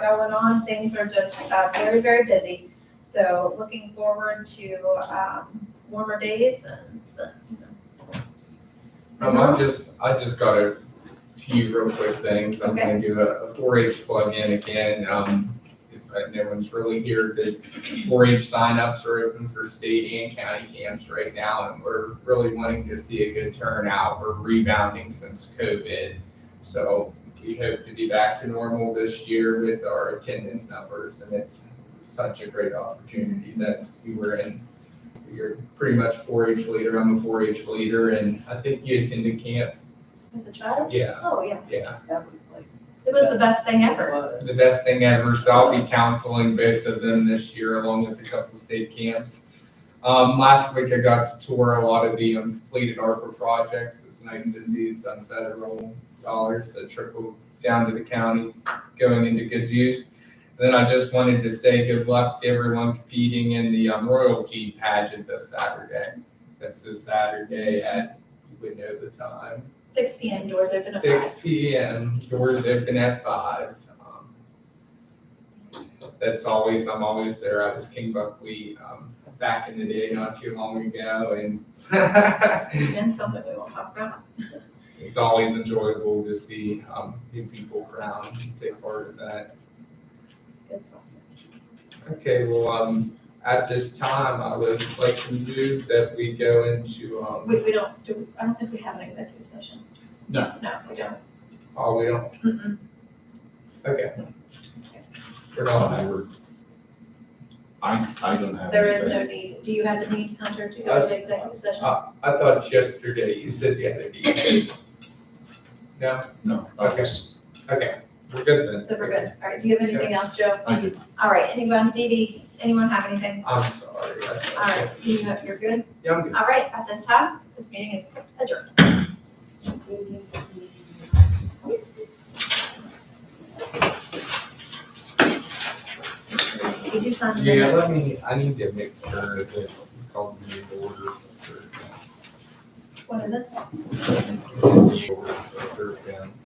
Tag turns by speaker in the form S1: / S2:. S1: going on. Things are just uh, very, very busy. So looking forward to um, warmer days and, so, you know, just-
S2: Um, I'm just, I just got a few real quick things. I'm gonna do a four H plug-in again. Um, if uh, no one's really here, the four H signups are open for state and county camps right now, and we're really wanting to see a good turnout. We're rebounding since COVID. So we hope to be back to normal this year with our attendance numbers, and it's such a great opportunity. That's, you were in you're pretty much a 4-H leader. I'm a 4-H leader, and I think you attended camp.
S1: As a child?
S2: Yeah,
S1: Oh, yeah.
S2: yeah,
S3: That was like.
S1: It was the best thing ever.
S3: was.
S2: the best thing ever. So I'll be counseling both of them this year, along with a couple state camps. Um, last week I got to tour a lot of the um, completed ARPA projects. It's nice to see some federal dollars that trickle down to the county going into good use. And then I just wanted to say good luck to everyone competing in the um, royalty pageant this Saturday. That's this Saturday at, you would know the time.
S1: Six P M, doors open at five.
S2: Six P M, doors open at five. Um, That's always, I'm always there, I was King Buckwheat, um, back in the day, not too long ago, and
S1: And something we won't talk about.
S2: it's always enjoyable to see, um, new people around and take part in that.
S1: Good process.
S2: Okay, well, um, at this time, I would like to move that we go into, um,
S1: We, we don't, do, I don't think we have an executive session.
S4: No.
S1: No, we don't.
S2: oh, we don't,
S1: Mm-mm.
S2: okay. We're not,
S4: I would- I, I don't have.
S1: There is
S4: anything.
S1: no need. Do you have the need, Hunter, to go to executive session?
S2: I thought yesterday, you said the other day. No?
S4: No, I
S2: Okay.
S4: was,
S2: Okay, we're good then.
S1: So we're good. All right, do you have anything else, Joe?
S4: I do.
S1: All right, anyone, Dee Dee, anyone have anything?
S2: I'm sorry. that's-
S1: All right, you, you're good?
S2: Yeah, I'm good.
S1: All right, at this time, this meeting is adjourned. Did you sign the
S2: Yeah, let
S1: minutes?
S2: me, I need to make sure that we called the order for
S1: What is it?
S2: the order for third down.